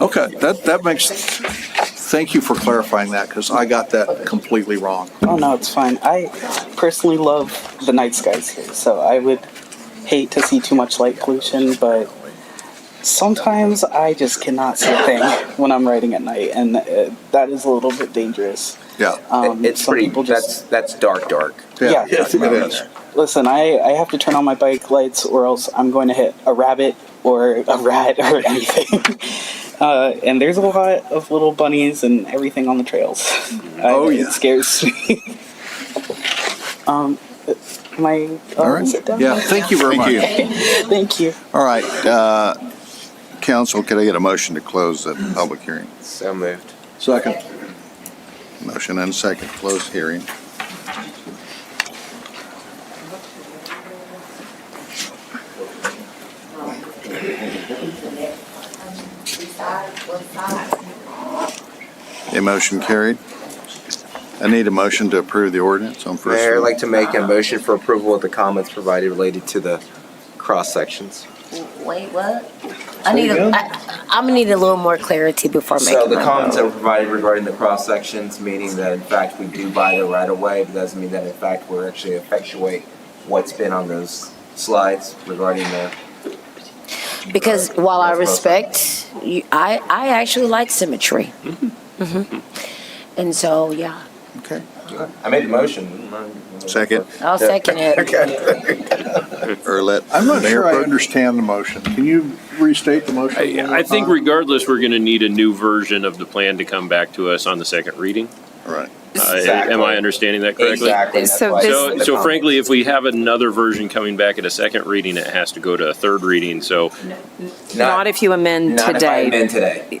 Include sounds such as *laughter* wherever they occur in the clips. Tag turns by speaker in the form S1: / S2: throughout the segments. S1: Okay, that, that makes, thank you for clarifying that, because I got that completely wrong.
S2: Oh no, it's fine. I personally love the night skies here, so I would hate to see too much light pollution, but sometimes I just cannot see a thing *laughs* when I'm riding at night, and uh, that is a little bit dangerous.
S1: Yeah.
S2: Um,
S3: it's
S2: some
S3: pretty.
S2: people just
S3: that's that's dark, dark.
S2: Yeah,
S1: It is.
S2: listen. I I have to turn on my bike lights, or else I'm going to hit a rabbit or a rat or *laughs* anything. Uh, and there's a lot of little bunnies and everything on the trails. I-
S1: Oh, yeah.
S2: It scares me.
S1: *laughs*
S2: um, am I? uh,
S4: All right.
S2: is it done?
S1: Yeah, thank you very much.
S4: Thank you.
S2: Thank you.
S4: All right, uh, council, can I get a motion to close the public hearing?
S3: So moved.
S1: Second.
S4: Motion and second, close hearing. A motion carried. I need a motion to approve the ordinance on
S3: Mayor,
S4: first.
S3: I'd
S4: reading.
S3: like to make a motion for approval of the comments provided related to the cross sections.
S5: Wait, what? I need, a- I, I'm gonna need a little more clarity before making.
S3: So the
S5: my
S3: comments that
S5: vote.
S3: were provided regarding the cross sections, meaning that in fact we do buy the right of way, but doesn't mean that in fact we're actually effectuate what's been on those slides regarding the.
S5: Because while I respect, you, I, I actually like symmetry. hmm And so, yeah,
S4: Okay,
S3: I made the motion.
S4: second,
S5: I'll second it.
S4: or let.
S1: I'm not
S4: Mayor
S1: sure I
S4: Pro-
S1: understand the motion. Can you restate the motion? Uh, one more
S6: I, I think
S3: uh,
S1: time?
S6: regardless, we're going to need a new version of the plan to come back to us on the second reading.
S4: All right.
S6: Uh,
S3: Exactly.
S6: Am I understanding that correctly?
S3: *laughs* Exactly. that's
S7: So
S3: why I
S7: this-
S3: made
S6: So,
S3: the
S6: so
S3: comment.
S6: frankly, if we have another version coming back at a second reading, it has to go to a third reading. So
S7: Not if you amend
S3: Not if I
S7: today.
S3: amend today.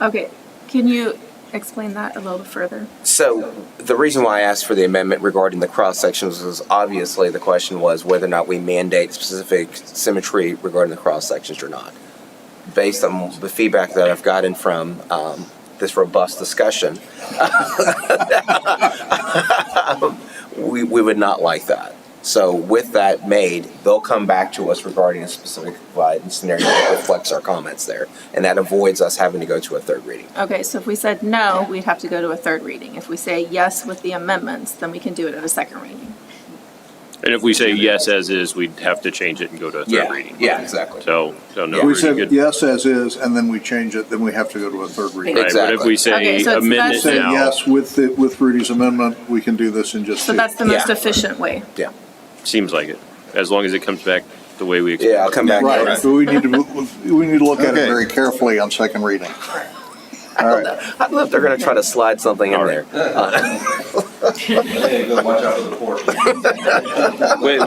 S8: Okay, can you explain that a little further?
S3: So the reason why I asked for the amendment regarding the cross sections was obviously the question was whether or not we mandate specific symmetry regarding the cross sections or not. Based on the feedback that I've gotten from um, this robust discussion, *laughs* we, we would not like that. So with that made, they'll come back to us regarding a specific slide and scenario that reflects our comments there, and that avoids us having to go to a third reading.
S8: Okay, so if we said no, we'd have to go to a third reading. If we say yes with the amendments, then we can do it at a second reading.
S6: And if we say yes as is, we'd have to change it and go to a third reading.
S3: Yeah, exactly.
S6: So, so no.
S1: We
S6: we're
S1: said
S6: good.
S1: yes as is, and then we change it, then we have to go to a third reading.
S6: Right, But if
S3: Exactly.
S6: we
S8: Okay,
S6: say
S8: so it's-
S6: amend it
S8: that's-
S1: Say
S6: now.
S1: yes with, the- with Rudy's amendment, we can do this in just
S8: So
S1: two.
S8: that's the most
S3: Yeah.
S8: efficient way.
S3: Yeah.
S6: Seems like it, as long as it comes back the way we expect.
S3: Yeah, I'll come back.
S1: Right,
S3: to
S1: but we need to, we need to look at it
S4: Okay.
S1: very carefully on second reading.
S3: that. I love they're going to try to slide something in there.
S6: Wh- Whether,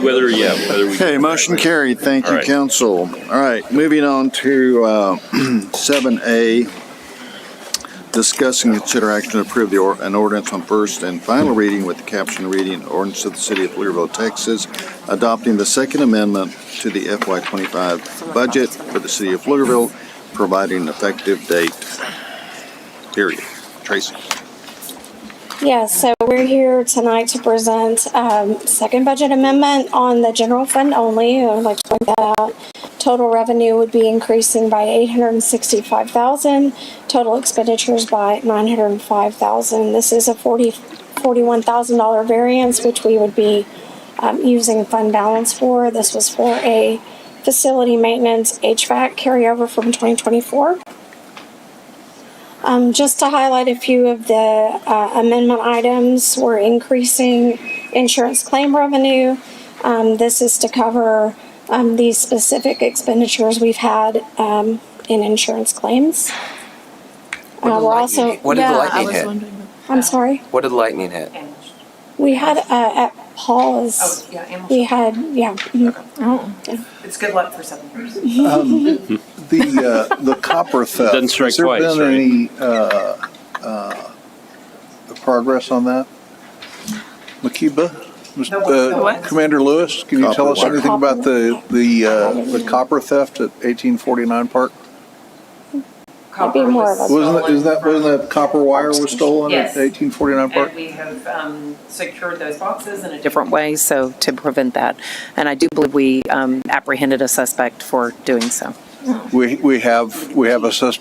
S6: yeah, whether
S3: *laughs*
S6: we.
S4: Okay, motion carried. Thank
S6: All
S4: you,
S6: right.
S4: council. All right, moving on to uh, *clears throat* seven A. Discuss and consider action to approve the, or- an ordinance on first and final reading with the caption reading, ordinance of the city of Louisville, Texas, adopting the second amendment to the FY twenty-five budget for the city of Louisville, providing an effective date. Period. Tracy.
S9: Yeah, so we're here tonight to present um, second budget amendment on the general fund only. I would like to point that out. Total revenue would be increasing by eight hundred and sixty-five thousand, total expenditures by nine hundred and five thousand. This is a forty, forty-one thousand dollar variance, which we would be um, using fund balance for. This was for a facility maintenance HVAC carryover from twenty twenty-four. Um, just to highlight a few of the uh, amendment items, we're increasing insurance claim revenue. Um, this is to cover um, these specific expenditures we've had um, in insurance claims. Uh, we're also,
S3: What did the lightning hit?
S8: wondering.
S9: I'm sorry,
S3: What did the lightning hit?
S9: we had uh, at Paul's, we had, yeah, mhm.
S8: Oh,
S10: It's good luck for seven years.
S1: The, uh, the copper theft.
S6: *laughs* Doesn't strike twice,
S1: Has there
S6: right?
S1: been any, uh, uh, progress on that? Makiba? Mr.
S10: what-
S1: uh,
S10: the
S8: what?
S1: Commander Lewis, can you
S4: Copper
S1: tell us
S4: what?
S1: anything about the, the, uh, the copper theft at eighteen forty-nine Park?
S9: That'd be more of a-
S1: Wasn't, that- isn't that, wasn't that copper wire was stolen at
S10: Yes.
S1: eighteen forty-nine Park?
S10: And we have um, secured those boxes in a different
S7: Different way, so to prevent that. And I do believe we um, apprehended a suspect for doing so.
S1: We, we have, we have a suspect